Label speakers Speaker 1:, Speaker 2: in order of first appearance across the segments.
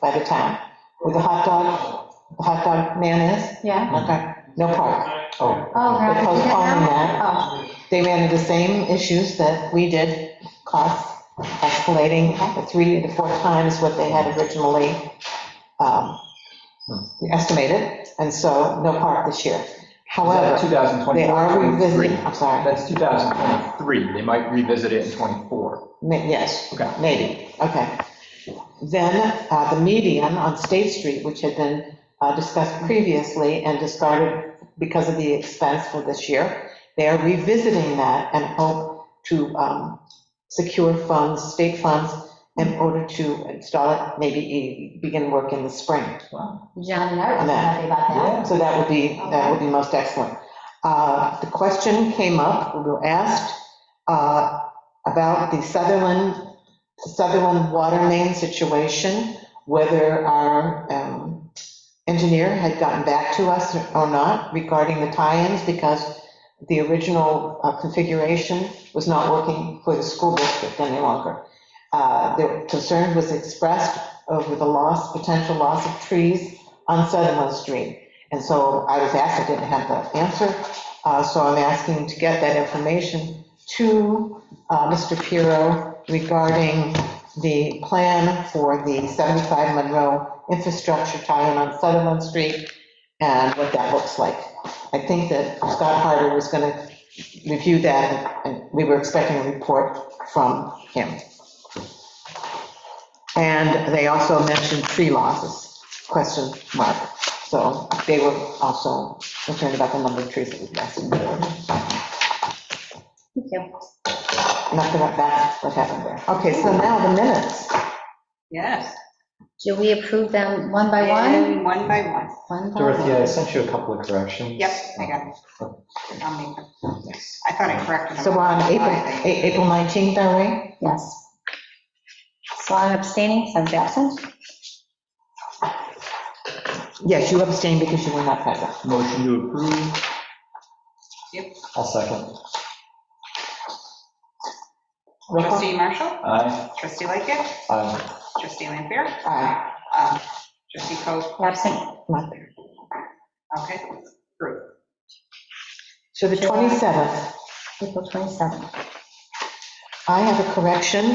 Speaker 1: by the time, where the hot dog, the hot dog man is,
Speaker 2: Yeah?
Speaker 1: okay, no park.
Speaker 3: Oh,
Speaker 2: Oh,
Speaker 1: They're
Speaker 2: God. you did
Speaker 1: postponing that.
Speaker 2: Oh,
Speaker 1: They ran into the same issues that we did, costs escalating the three to four times what they had originally um, estimated, and so no park this year.
Speaker 3: is that
Speaker 1: However, they are
Speaker 3: 2024?
Speaker 1: revisiting, I'm sorry,
Speaker 3: That's 2023, they might revisit it in '24.
Speaker 1: ma- yes,
Speaker 3: Okay.
Speaker 1: maybe, okay. Then uh, the median on State Street, which had been uh, discussed previously and discarded because of the expense for this year, they are revisiting that and hope to um, secure funds, state funds, in order to install it, maybe e- begin work in the spring.
Speaker 2: John and I were
Speaker 1: On that.
Speaker 2: happy about that.
Speaker 1: So that would be, that would be most excellent. Uh, The question came up, we were asked uh, about the Sutherland, Sutherland water main situation, whether our um, engineer had gotten back to us or not regarding the tie-ins, because the original uh, configuration was not working for the school district any longer. Uh, Their concern was expressed over the loss, potential loss of trees on Sutherland Street. And so I was asked, I didn't have the answer, uh, so I'm asking to get that information to uh, Mr. Piro regarding the plan for the 75 Monroe infrastructure tie-in on Sutherland Street and what that looks like. I think that Scott Harder was going to review that, and we were expecting a report from him. And they also mentioned tree losses, question mark. So they were also concerned about the number of trees that we lost.
Speaker 2: Thank you.
Speaker 1: Nothing like that, what happened there. Okay, so now the minutes.
Speaker 4: Yes.
Speaker 2: Do we approve them one by one?
Speaker 4: And One by one.
Speaker 2: One by
Speaker 5: Dorothy,
Speaker 2: one?
Speaker 5: I sent you a couple of corrections.
Speaker 4: Yep, I got it. I'll make them. I thought I corrected them.
Speaker 1: So we're on April, A- April 19th, are we?
Speaker 2: Yes. So I'm abstaining, so I'm absent.
Speaker 1: Yes, you abstained because you were not present.
Speaker 3: Motion to approve?
Speaker 5: I'll second.
Speaker 1: Roll call?
Speaker 4: Trustee Marshall,
Speaker 3: Aye.
Speaker 4: trustee Lightgev,
Speaker 5: Aye.
Speaker 4: trustee Lampier,
Speaker 1: Aye,
Speaker 4: um, trustee Coe,
Speaker 2: Absent.
Speaker 1: not there.
Speaker 4: okay, approved.
Speaker 1: So the 27th,
Speaker 2: April 27th.
Speaker 1: I have a correction.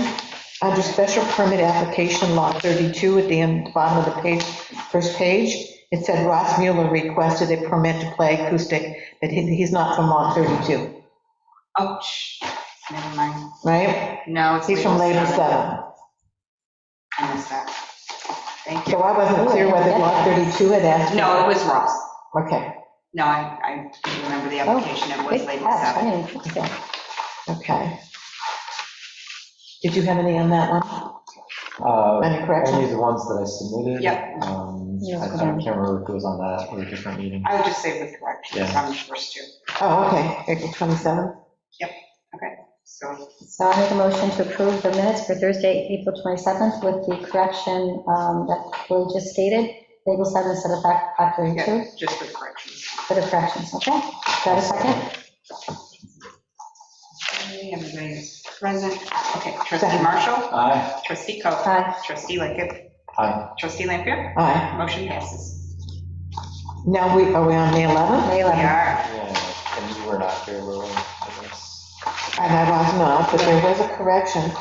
Speaker 1: Under special permit application lot 32, at the end, bottom of the page, first page, it said Ross Mueller requested a permit to play acoustic, but he- he's not from lot 32,
Speaker 4: Oh, shh, never mind.
Speaker 1: right?
Speaker 4: No, it's.
Speaker 1: He's from Label 7.
Speaker 4: I missed that. Thank you.
Speaker 1: So I wasn't clear whether lot 32 had asked.
Speaker 4: No, it was Ross.
Speaker 1: Okay,
Speaker 4: No, I, I remember the
Speaker 1: Oh,
Speaker 4: application, it was
Speaker 2: Good
Speaker 4: Label
Speaker 2: catch, I
Speaker 4: 7.
Speaker 2: didn't catch that.
Speaker 1: okay. Did you have any on that one?
Speaker 5: Uh,
Speaker 1: Any corrections?
Speaker 5: Only the ones that I submitted.
Speaker 4: Yep.
Speaker 5: Um,
Speaker 2: Yeah,
Speaker 5: I I
Speaker 2: okay.
Speaker 5: can't remember if it was on that or a different meeting.
Speaker 4: I would just say with corrections
Speaker 5: Yeah.
Speaker 4: on the first two,
Speaker 1: Oh, okay, April 27th.
Speaker 4: so,
Speaker 2: So I make a motion to approve the minutes for Thursday, April 27th with the correction um, that we just stated, Label 7 instead of fact fact
Speaker 4: yeah,
Speaker 2: 32,
Speaker 4: just with corrections.
Speaker 2: for the corrections, okay? Got a second?
Speaker 4: Everybody is present. Okay, trustee Marshall,
Speaker 5: Aye.
Speaker 4: trustee Coe,
Speaker 2: Aye.
Speaker 4: trustee Lickett,
Speaker 5: Aye.
Speaker 4: trustee Lampier,
Speaker 1: All right,
Speaker 4: motion passes.
Speaker 1: now we, are we on May 11th?
Speaker 2: May
Speaker 4: We
Speaker 2: 11th.
Speaker 4: are,
Speaker 5: Yeah, and you were not here, were we? I guess.
Speaker 1: And I was not, but there was a correction.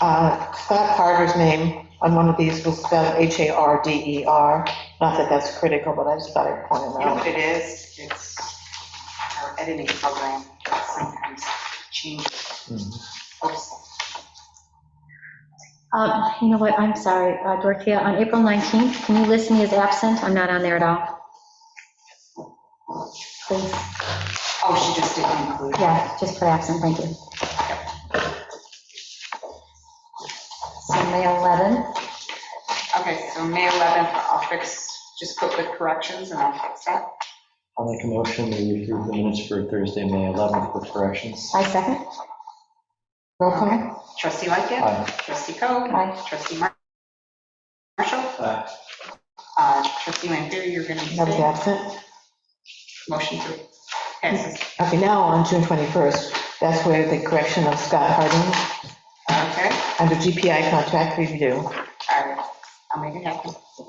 Speaker 1: Uh, Scott Harder's name on one of these was spelled H-A-R-D-E-R. E Not that that's critical, but I just thought I'd point
Speaker 4: you
Speaker 1: it
Speaker 4: know what
Speaker 1: out.
Speaker 4: it is? It's our editing program that sometimes
Speaker 3: Mm-hmm.
Speaker 4: changes. Oops.
Speaker 2: Um, You know what, I'm sorry, uh, Dorothea, on April 19th, can you list me as absent? I'm not on there at all. Please,
Speaker 4: Oh, she just didn't include. it.
Speaker 2: yeah, just put absent, thank you. So May 11th,
Speaker 4: Okay, so May 11th, I'll fix, just put with corrections and I'll fix that.
Speaker 5: I'll make a motion to approve the minutes for Thursday, May 11th with corrections.
Speaker 2: I second.
Speaker 1: Roll call?
Speaker 4: Trustee Lickett,
Speaker 5: Aye.
Speaker 4: trustee Coe,
Speaker 2: Aye.
Speaker 4: trustee Mar- Marshall,
Speaker 5: Aye.
Speaker 4: uh, trustee Lampier, you're going to
Speaker 1: That was
Speaker 4: abstain.
Speaker 1: absent.
Speaker 4: Motion to passes.
Speaker 1: Okay, now on June 21st, that's where the correction of Scott Harding
Speaker 4: Okay,
Speaker 1: under GPI contract review.
Speaker 4: all right. I'll make it happen.